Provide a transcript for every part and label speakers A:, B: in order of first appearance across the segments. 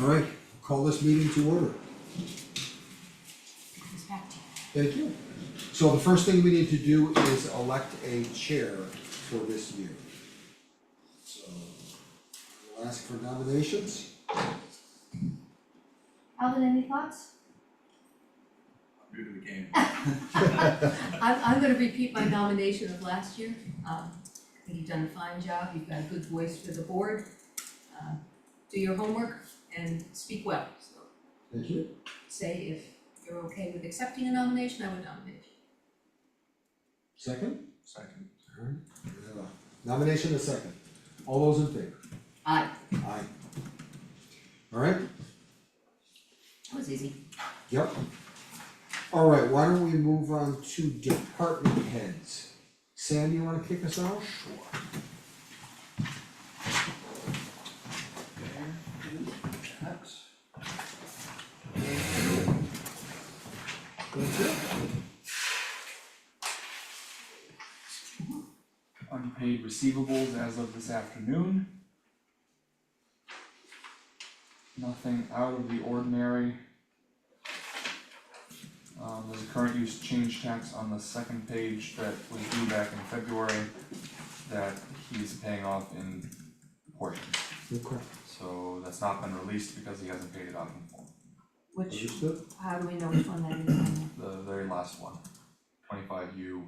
A: All right, call this meeting to order.
B: It's back to you.
A: Thank you. So the first thing we need to do is elect a chair for this year. So we'll ask for nominations.
B: Alvin, any thoughts?
C: new to the game.
B: I'm, I'm gonna repeat my nomination of last year. Um, I think you've done a fine job, you've got a good voice for the board. Uh, Do your homework and speak well, so
A: Thank you.
B: say if you're okay with accepting a nomination, I would nominate you.
A: Second?
C: Second.
A: All right. We have a Nomination and a second. All those in favor?
B: Aye,
A: Aye. All right,
B: that was easy.
A: yep. All right, why don't we move on to department heads? Sam, you wanna kick us off? Sure.
C: Unpaid receivables as of this afternoon. Nothing out of the ordinary. Um, there's a current use change tax on the second page that was due back in February that he's paying off in portions.
A: Okay,
C: So that's not been released because he hasn't paid it off in full.
B: Which,
A: understood?
B: how do we know which one that is on
C: The very last one, twenty-five U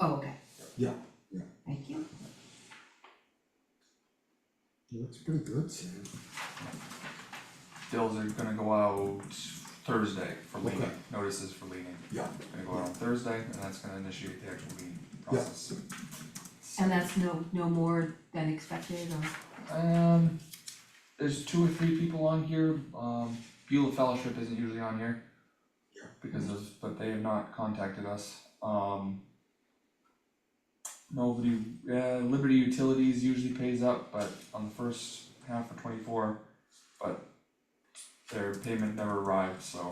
B: Oh, okay.
A: Yeah, yeah.
B: Thank you.
A: That's pretty good, Sam.
C: Bills are gonna go out Thursday for leaning,
A: Okay.
C: notices for leaning,
A: Yeah.
C: gonna go out on Thursday, and that's gonna initiate the actual leaning process.
B: And that's no, no more than expected or?
C: Um, there's two or three people on here, um, Beulah Fellowship isn't usually on here.
A: Yeah.
C: Because of, but they have not contacted us, um. Nobody, uh, Liberty Utilities usually pays up, but on the first half of twenty-four, but their payment never arrived, so.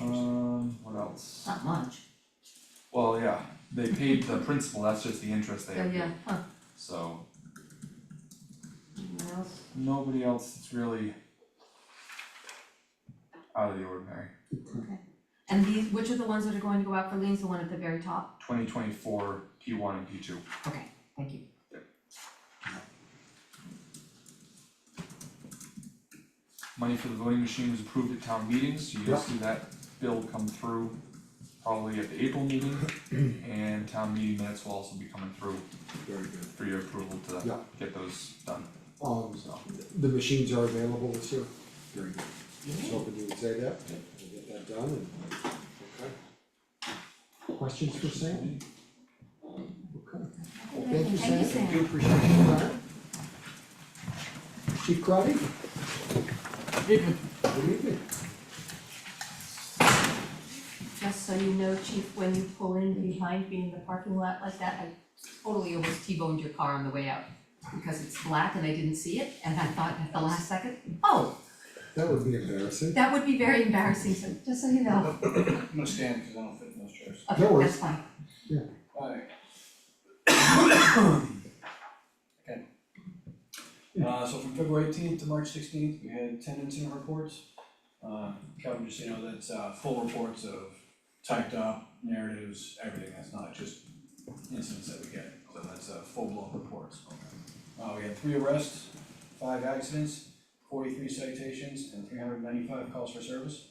C: Um, what else?
B: Not much.
C: Well, yeah, they paid the principal, that's just the interest they
B: So,
C: have,
B: yeah, huh,
C: so
B: anyone else?
C: nobody else is really out of the ordinary.
B: Okay, and these, which are the ones that are going to go out for liens, the one at the very top?
C: Twenty twenty-four, P one and P two.
B: Okay, thank you.
C: Money for the voting machine was approved at town meetings, so you'll
A: Yeah.
C: see that bill come through probably at the April meeting, and town meeting minutes will also be coming through
A: Very good.
C: for your approval
A: Yeah.
C: to get those done,
A: Um,
C: so.
A: the machines are available this year? Very good. Just hoping you would say that, and get that done and, okay. Questions for Sam? Okay, well, thank you, Sam.
B: Thank you, Sam.
A: Do appreciate your time. Chief Crowdy? Good evening.
B: Just so you know, chief, when you pull in behind me in the parking lot like that, I totally almost T-boned your car on the way out. Because it's black and I didn't see it, and I thought at the last second, oh,
A: That would be embarrassing.
B: that would be very embarrassing, so just so you know.
D: I'm gonna stand because I don't fit in those chairs.
B: Okay,
A: No worries.
B: that's fine.
D: Alright. Okay. Uh, so from February eighteenth to March sixteenth, we had ten incident reports. Uh, Kevin, just, you know, that's, uh, full reports of typed up narratives, everything, that's not just incidents that we get, so that's, uh, full-blown reports. Uh, we had three arrests, five accidents, forty-three citations, and three hundred ninety-five calls for service.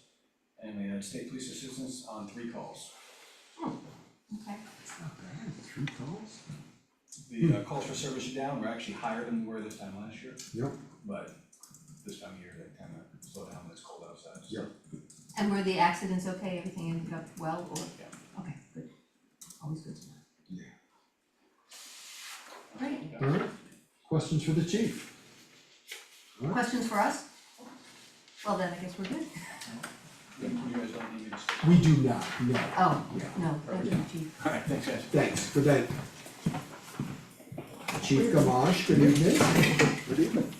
D: And we had state police assistance on three calls.
B: Okay,
A: That's not bad, three calls.
D: The uh, calls for service are down, we're actually higher than we were this time last year.
A: Yep.
D: But this time of year, they kind of slow down when it's cold outside. so-
A: Yep.
B: and were the accidents okay, everything ended up well, or?
D: Yeah.
B: Okay, good, always good to know.
A: Yeah.
B: Great,
A: Alright, questions for the chief?
B: Questions for us? Well, then I guess we're good.
D: You guys don't need me to.
A: We do not, no.
B: Oh,
A: Yeah.
B: no, thank you, chief.
D: Alright, thanks guys.
A: Thanks, good day. Chief Gamache, good evening. Good evening.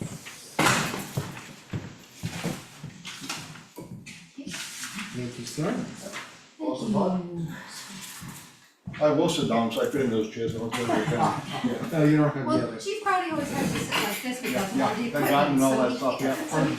A: Thank you, sir.
E: Awesome, huh? I will sit down, so I fit in those chairs, I don't care if you can.
A: Oh, you don't have the
B: Well,
A: others.
B: Chief Crowdy always has to sit like this because of all the equipment, so he
E: They got me and all that stuff,
B: can't-
E: yeah.
B: so he